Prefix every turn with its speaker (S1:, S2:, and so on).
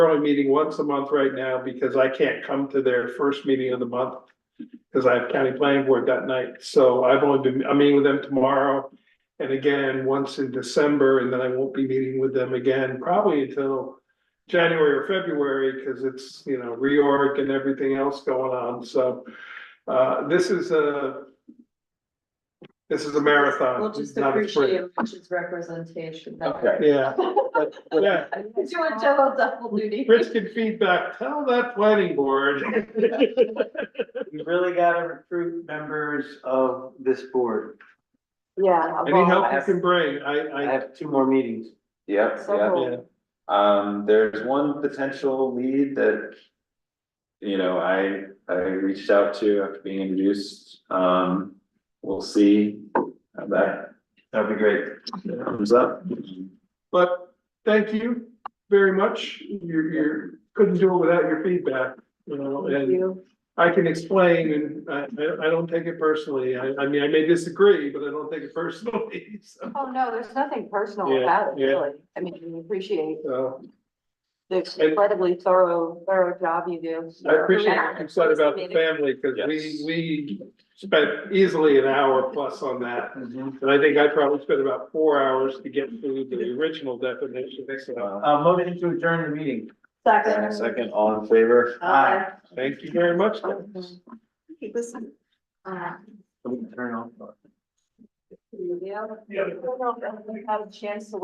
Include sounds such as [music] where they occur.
S1: Probably meeting once a month right now because I can't come to their first meeting of the month. Cause I have county planning board that night, so I've only been, I'm meeting with them tomorrow. And again, once in December, and then I won't be meeting with them again probably until. January or February, cause it's, you know, reorg and everything else going on, so. Uh, this is a. This is a marathon.
S2: We'll just
S1: not a sprint.
S2: appreciate
S1: [laughs]
S2: Rich's representation.
S3: Okay.
S1: Yeah,
S3: But- but-
S1: yeah.
S2: He's doing double double duty.
S1: Rich can feedback, tell that planning board.
S4: You really gotta recruit members of this board.
S2: Yeah.
S1: Any
S2: well,
S1: help you can bring,
S4: I
S1: I, I,
S4: have two more meetings.
S3: Yep, yep.
S2: several.
S3: Um, there's one potential lead that. You know, I, I reached out to after being introduced, um, we'll see how that
S4: That'd be great.
S3: comes up.
S1: but thank you very much. You, you couldn't do it without your feedback, you know, and
S2: You-
S1: I can explain and I, I, I don't take it personally. I, I mean, I may disagree, but I don't take it personally, [laughs] so.
S2: Oh, no, there's nothing personal
S1: Yeah,
S2: about it,
S1: yeah.
S2: really. I mean, we appreciate
S1: so
S2: the
S1: And-
S2: incredibly thorough, thorough job you do.
S1: I appreciate
S2: Yeah.
S1: what you said about the family, cause we,
S3: Yes.
S1: we spent easily an hour plus on that.
S4: Um,
S1: And I think I probably spent about four hours to get through the original definition. So
S3: Uh,
S4: motion to adjourn the meeting.
S3: Second, all in favor?
S4: Aye.
S1: Thank you very much.
S2: Listen. Uh,
S4: Turn off.
S2: you know,
S1: Yeah.
S2: I don't know if I've had a chance to